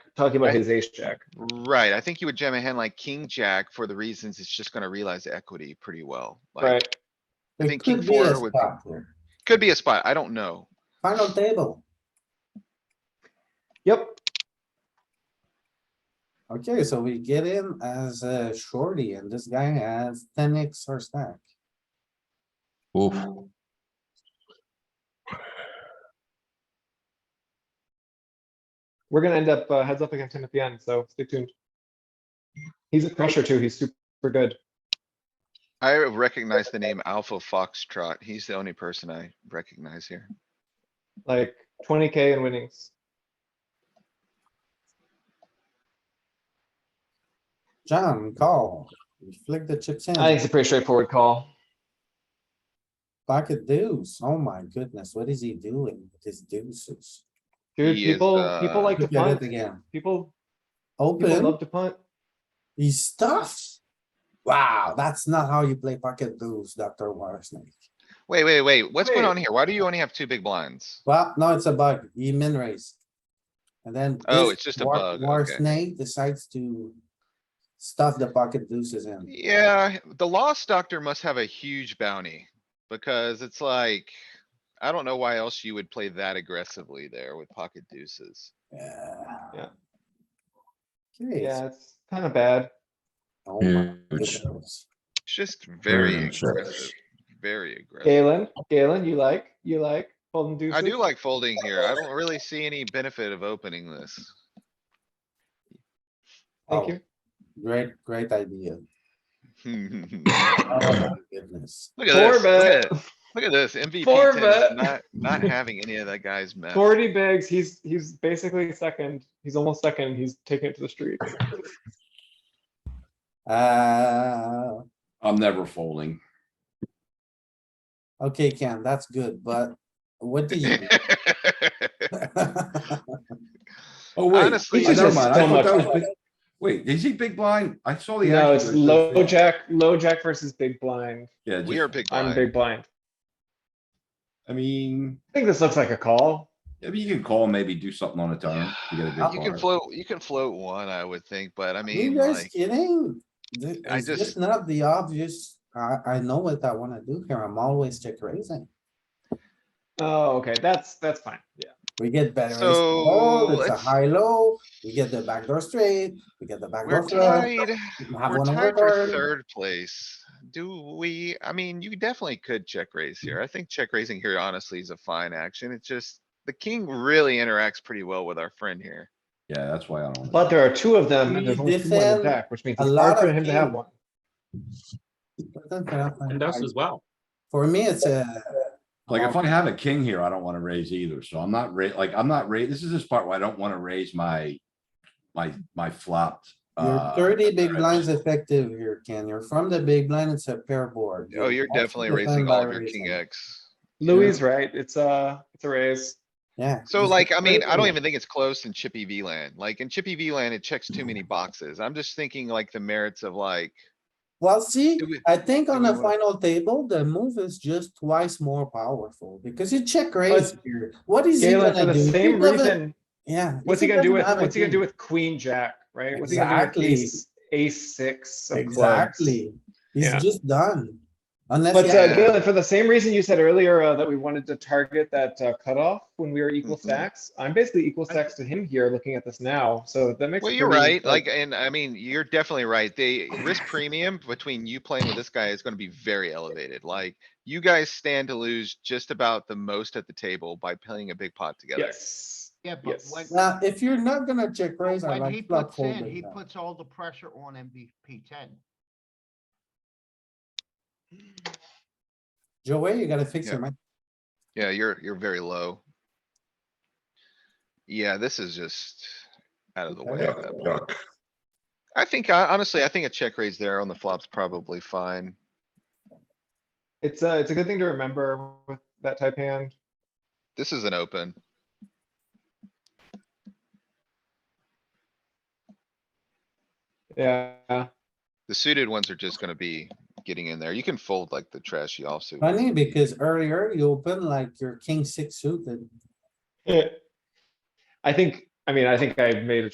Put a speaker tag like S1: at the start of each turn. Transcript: S1: talking about
S2: Right.
S1: his ace jack.
S2: Right, I think you would jam a hand like king jack for the reasons it's just gonna realize equity pretty well. Like,
S1: Right,
S2: I
S3: It
S2: think king
S3: could be a
S2: four would-
S3: spot here.
S2: could be a spot, I don't know.
S3: Final table.
S1: yep,
S3: Okay, so we get in as a shorty and this guy has ten X or stack.
S4: Oof.
S1: we're gonna end up uh, heads up against him at the end, so stay tuned. He's a crusher too, he's super good.
S2: I recognize the name Alpha Foxtrot, he's the only person I recognize here.
S1: like twenty K in winnings.
S3: John, call. We Flick the chips in.
S1: I think it's a pretty straightforward call.
S3: Pocket deuce. Oh my goodness, what is he doing with his deuces?
S1: Dude,
S2: He is,
S1: people, people
S2: uh,
S1: like to
S3: Look at it
S1: punt.
S3: again.
S1: People, people
S3: Open,
S1: love to punt.
S3: he stuffs. Wow, that's not how you play pocket deuce, Dr. Watersnake.
S2: Wait, wait, wait, what's going
S1: Wait.
S2: on here? Why do you only have two big blinds?
S3: Well, no, it's a bug. He min raised. And then.
S2: Oh,
S3: this
S2: it's just a
S3: war-
S2: bug,
S3: war
S2: okay.
S3: snake decides to stuff the pocket deuces in.
S2: Yeah, the lost doctor must have a huge bounty, because it's like, I don't know why else you would play that aggressively there with pocket deuces.
S3: Yeah.
S1: Yeah.
S3: Okay.
S1: Yeah, it's kind of bad.
S3: oh
S4: Hmm,
S3: my
S4: Huge.
S3: goodness.
S2: It's just very
S1: Hmm,
S4: Mm, sure.
S2: aggressive, very aggressive.
S1: Galen, Galen, you like, you like folding deuces?
S2: I do like folding here. I don't really see any benefit of opening this.
S1: Thank
S3: Oh,
S1: you.
S3: Great, great idea.
S2: Look
S3: Oh my goodness.
S2: at
S1: Four
S2: this, look
S1: bet.
S2: at, look at this MVP
S1: Four bet.
S2: tennis, not, not having any of that guy's mess.
S1: Forty bigs, he's, he's basically second. He's almost second. He's taking it to the street.
S3: Uh,
S4: I'm never folding.
S3: okay, Ken, that's good, but what do you?
S4: Oh, wait.
S2: Honestly,
S4: I-
S2: he's
S4: never
S1: just
S4: mind, I
S1: so
S4: thought
S1: much
S4: that was
S1: better.
S4: big- Wait, is Oh, he big blind? I saw the.
S1: No,
S4: action,
S1: it's
S4: but it was
S1: low
S4: just-
S1: jack, low jack versus big blind.
S4: Yeah,
S2: We are
S4: just,
S2: big
S1: I'm
S2: blind.
S1: big blind.
S4: I mean,
S1: I think this looks like a call.
S4: I mean, you can call, and maybe do something on a turn to get a
S2: You
S4: big
S2: can
S4: blind.
S2: float, you can float one, I would think, but I
S3: Are You
S2: mean,
S3: guys
S2: like,
S3: kidding? Th-
S2: I
S3: Is this
S2: just-
S3: not the obvious? I, I know what I wanna do here. I'm always check raising.
S1: Oh, okay, that's, that's fine. Yeah.
S3: We get better. ace to hold,
S2: So,
S3: It's a
S2: let's-
S3: high low. We get the backdoor straight. We get the backdoor
S2: we're
S3: flush.
S2: tied,
S3: we Have
S2: we're
S3: one
S2: tied for
S3: over.
S2: third place. Do we, I mean, you definitely could check raise here. I think check raising here honestly is a fine action. It's just, the king really interacts pretty well with our friend here.
S4: Yeah, that's why I don't.
S1: But there are two of them
S3: We
S1: and there's only two more in
S3: defend
S1: the deck, which means
S3: a
S1: it's
S3: lot
S1: hard for
S3: of
S1: him to have
S3: kings.
S1: one.
S5: And us as well.
S3: For me, it's a,
S4: Like, if I have a king here, I don't wanna raise either, so I'm not ra, like, I'm not ra, this is this part where I don't wanna raise my, my, my flopped.
S3: you're
S4: uh,
S3: thirty big
S4: threads.
S3: blinds effective here, Ken. You're from the big blind. It's a pair board.
S2: Oh, you're
S3: also
S2: definitely
S3: defend
S2: raising
S3: by
S2: all of your king
S3: raising.
S2: X.
S1: Louis is right. It's a, it's a raise.
S3: Yeah.
S2: So
S3: it's a
S2: like, I mean,
S3: pair
S2: I don't
S3: board.
S2: even think it's close in Chippy V land. Like in Chippy V land, it checks too many boxes. I'm just thinking like the merits of like,
S3: Well, see,
S2: Do we-
S3: I think on
S2: we
S3: the
S2: wanna-
S3: final table, the move is just twice more powerful because you check raise here. What is he
S1: Galen, for
S3: gonna
S1: the
S3: do? He
S1: same
S3: doesn't-
S1: reason,
S3: Yeah.
S1: what's he gonna do with, what's he gonna do with queen jack, right? What's he gonna do with
S3: Exactly.
S1: ace, ace six of clubs?
S3: Exactly.
S1: Yeah.
S3: He's just done.
S1: But
S3: Unless. he
S1: uh,
S3: has-
S1: Galen, for the same reason you said earlier uh, that we wanted to target that uh, cutoff when we were equal
S2: Mhm.
S1: stacks, I'm basically equal
S2: I-
S1: stacks to him here, looking at this now, so that makes.
S2: well,
S1: it
S2: you're
S1: pretty,
S2: right. Like, and I mean, you're definitely right. The risk premium between you playing with this guy is gonna be very elevated. Like you guys stand to lose just about the most at the table by playing a big pot together.
S1: Yes,
S6: Yeah, but
S1: yes.
S6: when,
S3: Now, uh, if you're not gonna check raise, I
S6: when he
S3: like flop
S6: puts in,
S3: folding.
S6: he
S3: now.
S6: puts all the pressure on MVP ten.
S3: Joey, you gotta fix your mind.
S2: Yeah, you're, you're very low. Yeah, this is just out of the way at that point. I think, I honestly, I think a check raise there on the flop's probably fine.
S1: It's a, it's a good thing to remember with that type hand.
S2: This is an open.
S1: Yeah,
S2: The suited ones are just gonna be getting in there. You can fold like the trashy offsuit. ones.
S3: Funny because earlier you open like your king six suited.
S1: I think, I mean, I think I've made a